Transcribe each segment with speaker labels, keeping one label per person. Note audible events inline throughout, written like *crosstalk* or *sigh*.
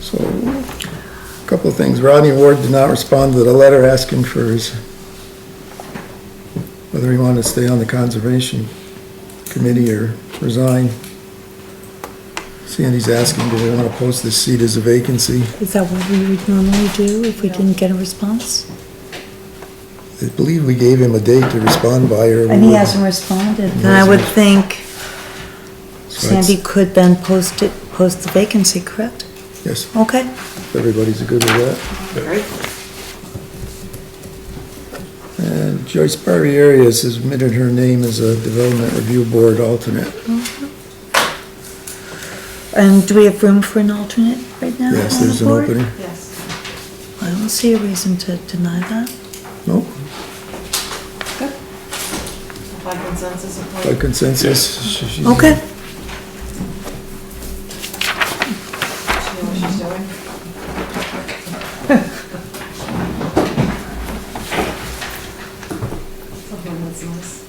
Speaker 1: So, a couple of things. Rodney Ward did not respond to the letter asking for his, whether he wanted to stay on the Conservation Committee or resign. Sandy's asking, do we want to post this seat as a vacancy?
Speaker 2: Is that what we would normally do if we didn't get a response?
Speaker 1: I believe we gave him a date to respond by or. we
Speaker 2: And he
Speaker 1: would-
Speaker 2: hasn't responded, then I would think
Speaker 1: so it's-
Speaker 2: Sandy could then post it, post the vacancy, correct?
Speaker 1: Yes,
Speaker 2: Okay.
Speaker 1: if everybody's good with that.
Speaker 3: Great.
Speaker 1: And Joyce Barrieri has submitted her name as a Development Review Board alternate.
Speaker 2: And do we have room for an alternate right now?
Speaker 1: Yes,
Speaker 2: on the
Speaker 1: there's an
Speaker 2: Oh, board?
Speaker 1: opening.
Speaker 3: Yes.
Speaker 2: I don't see a reason to deny that.
Speaker 1: No,
Speaker 3: By consensus,
Speaker 1: by
Speaker 3: appoint
Speaker 1: consensus. she- she's-
Speaker 2: Okay,
Speaker 3: she knows what she's doing. Something that's nice.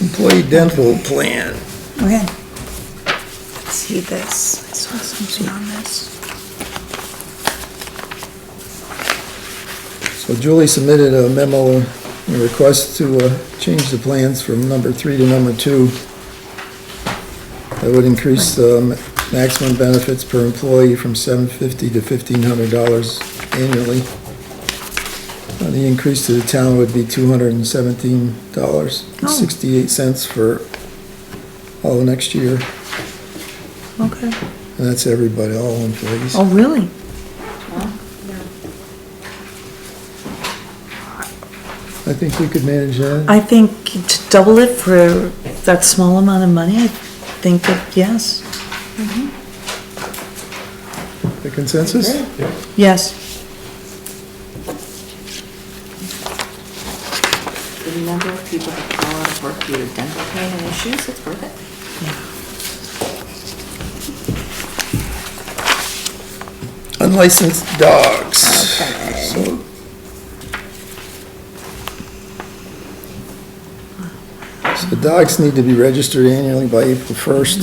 Speaker 1: Employee dental plan.
Speaker 2: okay. Let's see this. I saw something on this.
Speaker 1: So Julie submitted a memo, a request to uh, change the plans from number three to number two. That would increase the maximum benefits per employee from seven fifty to fifteen hundred dollars annually. Uh, The increase to the town would be two hundred and seventeen dollars, sixty-eight cents for all of next year.
Speaker 2: Okay.
Speaker 1: And that's everybody, all employees.
Speaker 2: Oh, really?
Speaker 1: I think we could manage that.
Speaker 2: I think to double it for that small amount of money, I think that, yes,
Speaker 1: The consensus?
Speaker 2: yes.
Speaker 3: The number of people that call out of work due to dental pain and issues, it's worth it.
Speaker 1: Unlicensed dogs. So So dogs need to be registered annually by April first.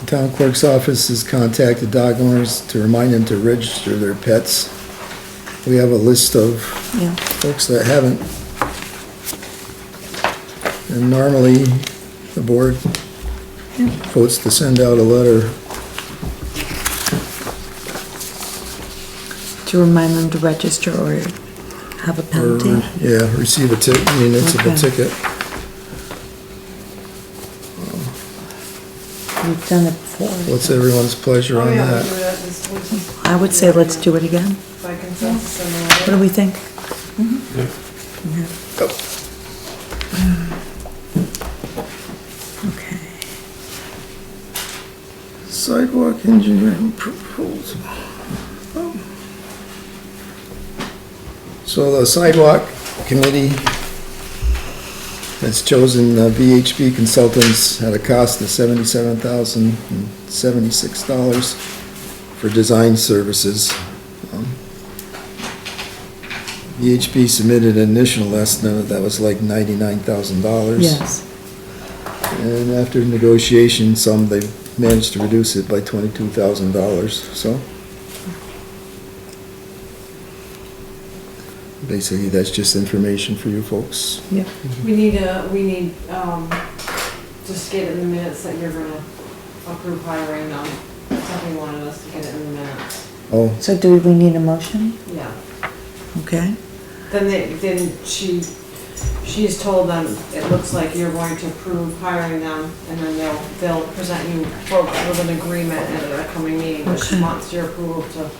Speaker 1: The Town clerk's office has contacted dog owners to remind them to register their pets. We have a list of
Speaker 2: Yeah.
Speaker 1: folks that haven't. And normally, the board votes to send out a letter.
Speaker 2: To remind them to register or have a
Speaker 1: or uh,
Speaker 2: penalty.
Speaker 1: Yeah, receive a ticket, municipal
Speaker 2: Okay.
Speaker 1: ticket.
Speaker 2: We've done it before.
Speaker 1: What's everyone's pleasure
Speaker 3: Oh,
Speaker 1: on that?
Speaker 3: that this week
Speaker 2: I would say let's do it again.
Speaker 3: by consensus and uh,
Speaker 2: What do we think?
Speaker 1: Mm-hmm. Go.
Speaker 2: Okay.
Speaker 1: Sidewalk engineering proposal. So the sidewalk committee has chosen uh, VHB Consultants at a cost of seventy-seven thousand and seventy-six dollars for design services. Um, VHB submitted an initial estimate that was like ninety-nine thousand dollars.
Speaker 2: Yes.
Speaker 1: And after negotiation, some, they managed to reduce it by twenty-two thousand dollars, so. Basically, that's just information for you folks.
Speaker 2: Yeah.
Speaker 3: We need a, we need, um, just get in the minutes that you're gonna approve hiring um, on, something wanted us to get it in the minutes.
Speaker 1: Oh,
Speaker 2: So do we need a motion?
Speaker 3: Yeah.
Speaker 2: Okay.
Speaker 3: Then they, then she, she's told them, it looks like you're going to approve hiring them, and then they'll, they'll present you folks with an agreement at a coming meeting, but she
Speaker 2: Okay.
Speaker 3: wants your approval to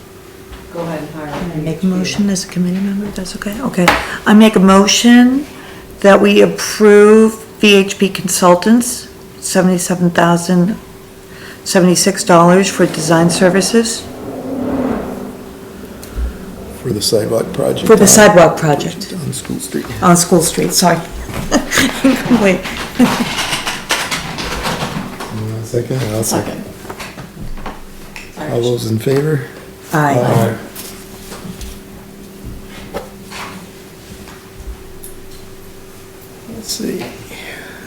Speaker 3: go ahead and hire.
Speaker 2: I Make a motion as a committee member, that's okay? Okay. I make a motion that we approve VHP Consultants, seventy-seven thousand, seventy-six dollars for design services
Speaker 1: for the sidewalk project.
Speaker 2: for the sidewalk project
Speaker 1: On School Street.
Speaker 2: on School Street, sorry. *laughs* Wait,
Speaker 1: Second, I'll second. All those in favor?
Speaker 2: aye.
Speaker 1: Aye.